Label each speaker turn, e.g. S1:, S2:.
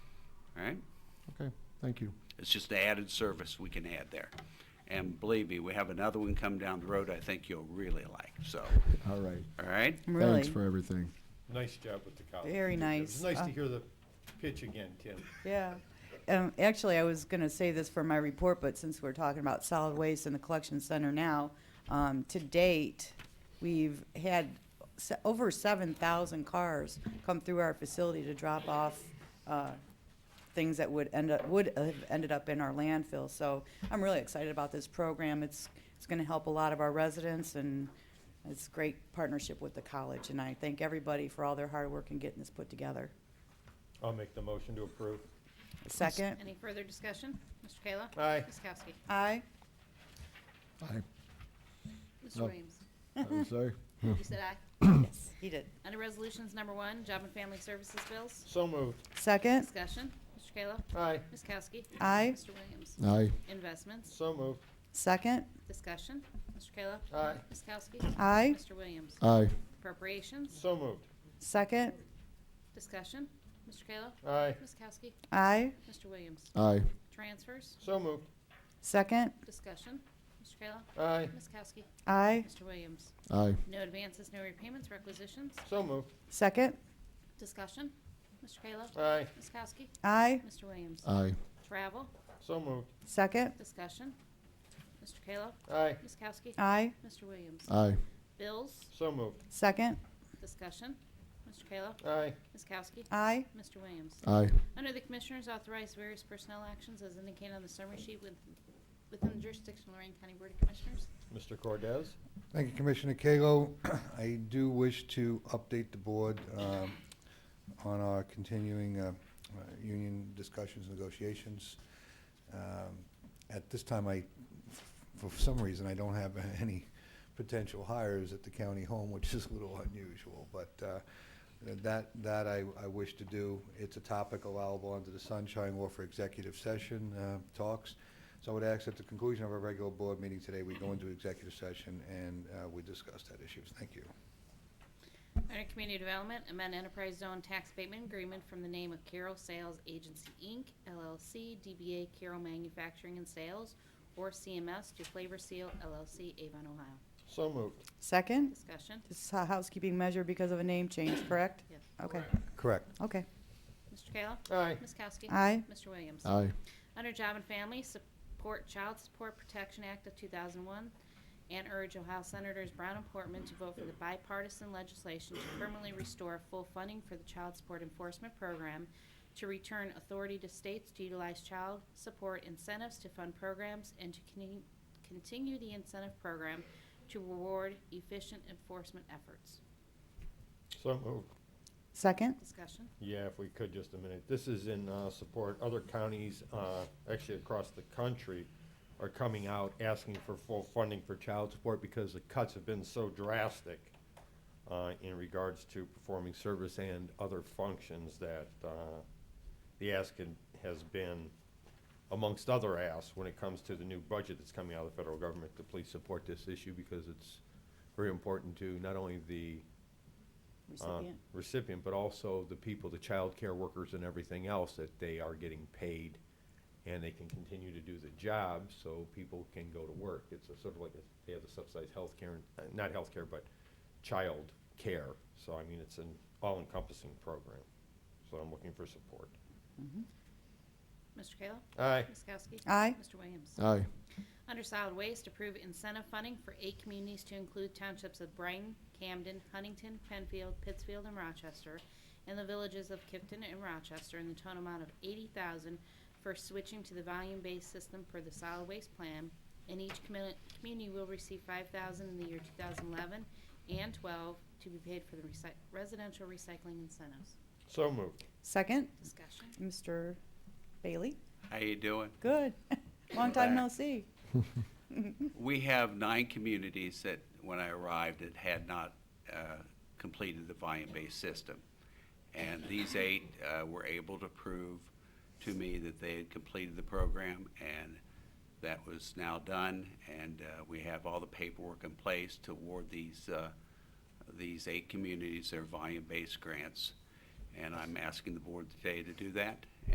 S1: Okay, thank you.
S2: It's just an added service we can add there. And believe me, we have another one come down the road I think you'll really like, so,
S1: All right.
S2: all right?
S1: Thanks
S3: Really?
S1: for everything.
S4: Nice job with the college.
S3: Very
S4: It
S3: nice.
S4: was nice
S3: Uh,
S4: to hear the pitch again, Tim.
S3: Yeah. Um, actually, I was going to say this for my report, but since we're talking about solid waste and the collection center now, um, to date, we've had se- over 7,000 cars come through our facility to drop off uh, things that would end up would have ended up in our landfill. So I'm really excited about this program. It's it's going to help a lot of our residents and. It's a great partnership with the college, and I thank everybody for all their hard work in getting this put together.
S4: I'll make the motion to approve.
S3: Second?
S5: Any further discussion? Mr. Kayla?
S4: Aye.
S5: Ms. Kowski?
S3: Aye.
S1: Aye.
S5: Mr.
S1: No.
S5: Williams?
S1: I'm sorry.
S5: You said aye.
S3: He did.
S5: Under Resolutions Number One, Job and Family Services Bills?
S4: So moved.
S3: Second?
S5: Discussion. Mr. Kayla?
S4: Aye.
S5: Ms. Kowski?
S3: Aye.
S5: Mr. Williams?
S1: Aye.
S5: Investments?
S4: So moved.
S3: Second?
S5: Discussion. Mr. Kayla?
S4: Aye.
S5: Ms. Kowski?
S3: Aye.
S5: Mr. Williams?
S1: Aye.
S5: Appropriations?
S4: So moved.
S3: Second?
S5: Discussion. Mr. Kayla?
S4: Aye.
S5: Ms. Kowski?
S3: Aye.
S5: Mr. Williams?
S1: Aye.
S5: Transfers?
S4: So moved.
S3: Second?
S5: Discussion. Mr. Kayla?
S4: Aye.
S5: Ms. Kowski?
S3: Aye.
S5: Mr. Williams?
S1: Aye.
S5: No advances, no repayments, requisitions?
S4: So moved.
S3: Second?
S5: Discussion. Mr. Kayla?
S4: Aye.
S5: Ms. Kowski?
S3: Aye.
S5: Mr. Williams?
S1: Aye.
S5: Travel?
S4: So moved.
S3: Second?
S5: Discussion. Mr. Kayla?
S4: Aye.
S5: Ms. Kowski?
S3: Aye.
S5: Mr. Williams?
S1: Aye.
S5: Bills?
S4: So moved.
S3: Second?
S5: Discussion. Mr. Kayla?
S4: Aye.
S5: Ms. Kowski?
S3: Aye.
S5: Mr. Williams?
S1: Aye.
S5: Under the Commissioners, authorize various personnel actions as indicated on the summary sheet with- within the jurisdiction of Lorraine County Board of Commissioners.
S4: Mr. Cordez?
S6: Thank you, Commissioner Cagle. I do wish to update the board um, on our continuing uh, uh, union discussions, negotiations. Um, At this time, I, for some reason, I don't have any potential hires at the county home, which is a little unusual, but uh, that, that I, I wish to do. It's a topic allowable under the sunshine law for executive session uh, talks. So I would ask at the conclusion of our regular board meeting today, we go into executive session and uh, we discuss that issue. Thank you.
S5: Under Community Development, amend Enterprise Zone Tax Abatement Agreement from the name of Carroll Sales Agency, Inc., LLC, DBA Carroll Manufacturing and Sales, or CMS, to Flavor Seal LLC, Avon, Ohio.
S4: So moved.
S3: Second?
S5: Discussion.
S3: This is a housekeeping measure because of a name change, correct?
S5: Yes.
S3: Okay,
S6: Correct.
S3: okay.
S5: Mr. Kayla?
S4: Aye.
S5: Ms. Kowski?
S3: Aye.
S5: Mr. Williams?
S1: Aye.
S5: Under Job and Family, support Child Support Protection Act of 2001 and urge Ohio Senators Brown and Portman to vote for the bipartisan legislation to permanently restore full funding for the Child Support Enforcement Program, to return authority to states to utilize child support incentives to fund programs, and to con- continue the incentive program to reward efficient enforcement efforts.
S4: So moved.
S3: Second?
S5: Discussion?
S4: Yeah, if we could, just a minute. This is in uh, support. Other counties, uh, actually across the country, are coming out asking for full funding for child support because the cuts have been so drastic uh, in regards to performing service and other functions that uh, the ask had- has been, amongst other asks, when it comes to the new budget that's coming out of the federal government, to please support this issue because it's very important to not only the uh,
S3: Recipient?
S4: recipient, but also the people, the child care workers and everything else, that they are getting paid and they can continue to do the job so people can go to work. It's a sort of like, a- they have the subsidized healthcare, and- uh, not healthcare, but child care. So I mean, it's an all-encompassing program. So I'm looking for support.
S5: Mr. Kayla?
S4: Aye.
S5: Ms. Kowski?
S3: Aye.
S5: Mr. Williams?
S1: Aye.
S5: Under solid waste, approve incentive funding for eight communities to include townships of Brighton, Camden, Huntington, Penfield, Pittsfield, and Rochester, and the villages of Kipton and Rochester in the total amount of eighty thousand for switching to the volume-based system for the solid waste plan, and each commu- community will receive five thousand in the year two thousand eleven and twelve to be paid for the recy- residential recycling incentives.
S4: So moved.
S3: Second?
S5: Discussion.
S3: Mr. Bailey?
S2: How you doing?
S3: Good. Long time no see.
S2: We have nine communities that, when I arrived, that had not uh, completed the volume-based system. And these eight uh, were able to prove to me that they had completed the program, and that was now done. And uh, we have all the paperwork in place to award these, uh, these eight communities their volume-based grants. And I'm asking the board today to do that